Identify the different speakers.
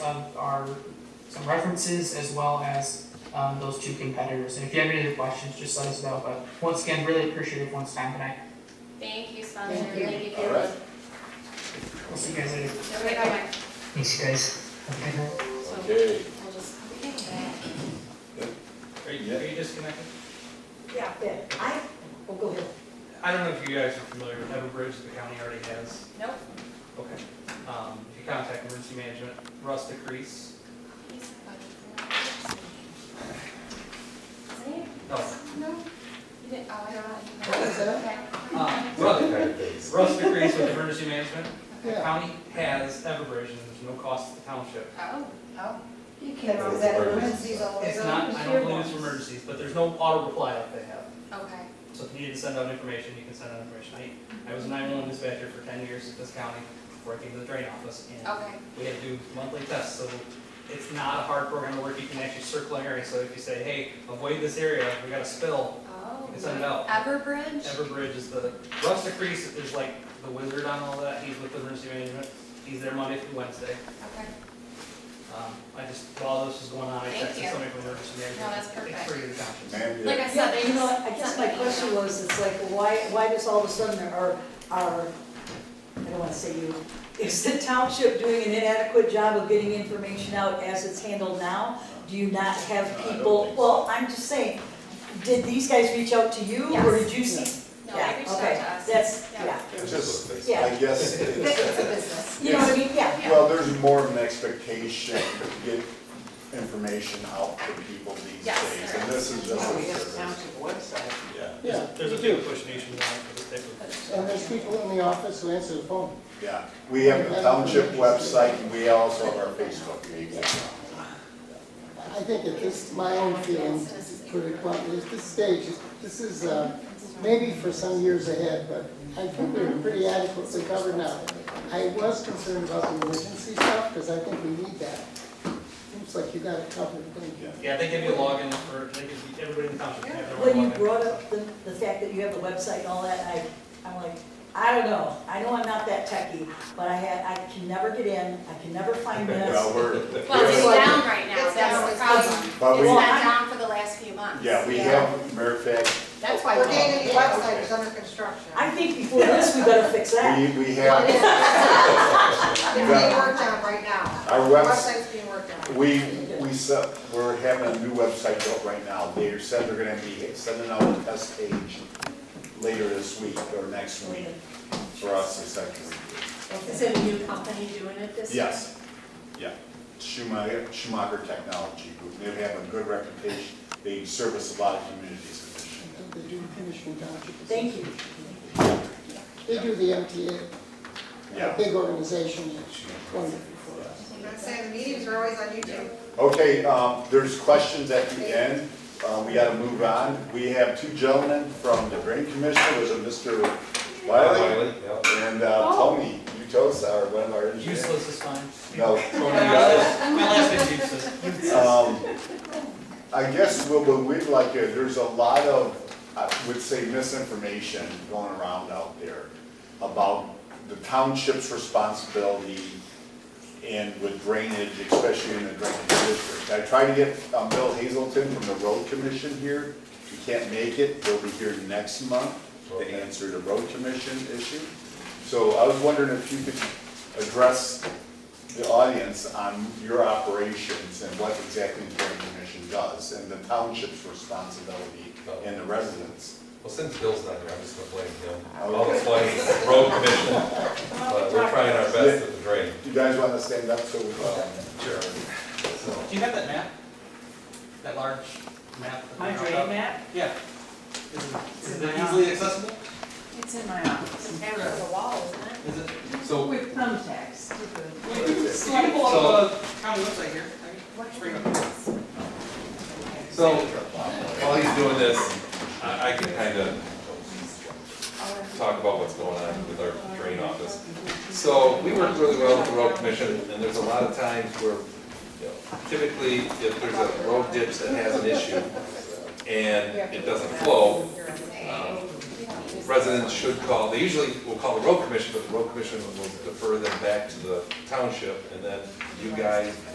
Speaker 1: um, are some references as well as um, those two competitors. And if you have any other questions, just let us know. But once again, really appreciative once time tonight.
Speaker 2: Thank you, sponsor.
Speaker 3: Thank you.
Speaker 2: Thank you,
Speaker 4: All right.
Speaker 2: Caleb.
Speaker 1: We'll see you guys later.
Speaker 2: Okay, bye-bye.
Speaker 1: Thanks, you guys. Have a good night.
Speaker 2: So
Speaker 4: Okay,
Speaker 2: we'll just, okay.
Speaker 5: Are you, are you disconnected?
Speaker 3: Yeah, yeah, I, oh, go ahead.
Speaker 5: I don't know if you guys are familiar with Everbridge, the county already has.
Speaker 2: Nope.
Speaker 5: Okay. Um, if you contact emergency management, Russ DeCrease,
Speaker 2: He's funny. Is he?
Speaker 5: no,
Speaker 2: No? You didn't, oh, I don't know.
Speaker 3: What was that?
Speaker 5: uh,
Speaker 2: Okay.
Speaker 5: Russ, Russ DeCrease with emergency management. The
Speaker 3: Yeah.
Speaker 5: county has Everbridge and there's no cost to the township.
Speaker 2: Oh, oh.
Speaker 3: You can't, is Oh, that emergencies all
Speaker 5: It's not, I don't believe it's for emergencies, but there's no auto reply like they have.
Speaker 2: Okay.
Speaker 5: So if you need to send out information, you can send out information. I, I was a nine-one-one dispatcher for ten years at this county, working in the drain office, and
Speaker 2: Okay.
Speaker 5: we had to do monthly tests, so it's not a hard program to work, you can actually circle an area, so if you say, hey, avoid this area, we got a spill,
Speaker 2: Oh.
Speaker 5: you can send it out.
Speaker 2: Everbridge?
Speaker 5: Everbridge is the, Rustic Crease is like the wizard on all that, he's with the emergency management, he's there Monday through Wednesday.
Speaker 2: Okay.
Speaker 5: Um, I just, while this was going on, I
Speaker 2: Thank
Speaker 5: texted
Speaker 2: you.
Speaker 5: somebody from emergency management.
Speaker 2: that's perfect.
Speaker 5: It's free to the township.
Speaker 4: Ma'am,
Speaker 2: Like
Speaker 4: yeah.
Speaker 2: I said,
Speaker 3: Yeah,
Speaker 2: they
Speaker 3: you know,
Speaker 2: just.
Speaker 3: I guess my question was, it's like, why, why does all of a sudden there are, are, I don't wanna say you, is the township doing an inadequate job of getting information out as it's handled now? Do you not have
Speaker 4: No, I don't
Speaker 3: people,
Speaker 4: think so.
Speaker 3: well, I'm just saying, did these guys reach out to you, or
Speaker 2: Yes.
Speaker 3: did you see?
Speaker 2: No, they reached out
Speaker 3: okay,
Speaker 2: to us.
Speaker 3: That's,
Speaker 2: Yeah.
Speaker 3: yeah,
Speaker 4: It's just,
Speaker 3: Yeah.
Speaker 4: I guess,
Speaker 2: It's a
Speaker 4: it's,
Speaker 2: business.
Speaker 3: you know what I mean, yeah.
Speaker 2: Yeah.
Speaker 4: well, there's more of an expectation to get information out to people these
Speaker 2: Yes,
Speaker 4: days,
Speaker 2: there
Speaker 4: and this is just.
Speaker 6: Yeah, we
Speaker 4: a
Speaker 6: have a
Speaker 4: service.
Speaker 6: township website.
Speaker 4: Yeah,
Speaker 7: Yeah,
Speaker 5: There's a
Speaker 7: we do.
Speaker 5: big push nationwide for this type of.
Speaker 7: And there's people in the office who answer the phone.
Speaker 4: yeah, we have the township website, and we also have our Facebook page.
Speaker 7: I think at this, my own feeling, pretty bluntly, at this stage, this is, uh, maybe for some years ahead, but I think we're pretty adequately covered now. I was concerned about the emergency stuff, because I think we need that. Seems like you got it covered, thank you.
Speaker 5: Yeah, they give you a login for, they give you, everybody in the township can have their own
Speaker 3: When you
Speaker 5: login.
Speaker 3: brought up the, the fact that you have the website and all that, I, I'm like, I don't know, I know I'm not that techie, but I had, I can never get in, I can never find
Speaker 4: Well,
Speaker 3: minutes.
Speaker 4: we're.
Speaker 2: Well, it's
Speaker 4: we're-
Speaker 2: down right now,
Speaker 6: It's down.
Speaker 2: that's the problem.
Speaker 4: But we-
Speaker 2: It's been down for the last few months.
Speaker 4: Yeah, we have, matter of fact,
Speaker 2: That's why.
Speaker 6: We're
Speaker 2: we-
Speaker 6: getting the website is under construction.
Speaker 3: I think before this, we better fix that.
Speaker 4: we, we
Speaker 6: Well,
Speaker 4: have,
Speaker 6: It's it's being worked on right now.
Speaker 4: Our
Speaker 6: The
Speaker 4: webs-
Speaker 6: Website's being worked on.
Speaker 4: we, we set, we're having a new website built right now. They said they're gonna be sending out a test page later this week or next week for us to send to review.
Speaker 3: Okay.
Speaker 8: Is it a new company doing it this year?
Speaker 4: Yes, yeah. Schumacher, Schumacher Technology Group, they have a good reputation, they service a lot of communities in Michigan.
Speaker 7: I think They do Michigan Township.
Speaker 3: Thank you.
Speaker 7: They do the MTA,
Speaker 4: Yeah.
Speaker 7: big organization, it's wonderful for us.
Speaker 6: I'm not saying the meetings are always on YouTube.
Speaker 4: Okay, um, there's questions at the end, uh, we gotta move on. We have two gentlemen from the Drain Commission, there's a Mr. Wiley and uh, Tony Utosa, or one of our engineers.
Speaker 5: Useless is fine.
Speaker 4: No,
Speaker 5: My
Speaker 4: Tony Utosa.
Speaker 5: last name's useless.
Speaker 4: Um, I guess what what we'd like, to- there's a lot of, I would say misinformation going around out there about the township's responsibility and with drainage, especially in the drainage district. I tried to get um, Bill Hazelton from the road commission here. He can't make it, he'll be here next month to answer the road commission issue. So I was wondering if you could address the audience on your operations and what exactly the Drain Commission does and the township's responsibility and the residents.
Speaker 9: Well, since Bill's not here, I'm just gonna blame him. I'll
Speaker 4: Okay.
Speaker 9: explain the road commission, but we're trying our best with the drain.
Speaker 4: Do you guys want to stand up so we can? Sure.
Speaker 5: Do you have that map? That large map? that
Speaker 8: My
Speaker 5: they
Speaker 8: drain
Speaker 5: dropped?
Speaker 8: map,
Speaker 5: Yeah. Is it- Is it easily accessible?
Speaker 8: it's in my office.
Speaker 6: It's hammered to the wall, isn't
Speaker 5: Is
Speaker 6: it?
Speaker 5: it?
Speaker 9: So,
Speaker 8: With thumbtacks to the.
Speaker 5: We can pull up a county website here. Let's bring up-
Speaker 9: so while he's doing this, I, I can kind of talk about what's going on with our drain office. So we work really well with the road commission, and there's a lot of times where, you know, typically, if there's a road ditch that has an issue and it doesn't flow, um, residents should call, they usually will call the road commission, but the road commission will defer them back to the township, and then you guys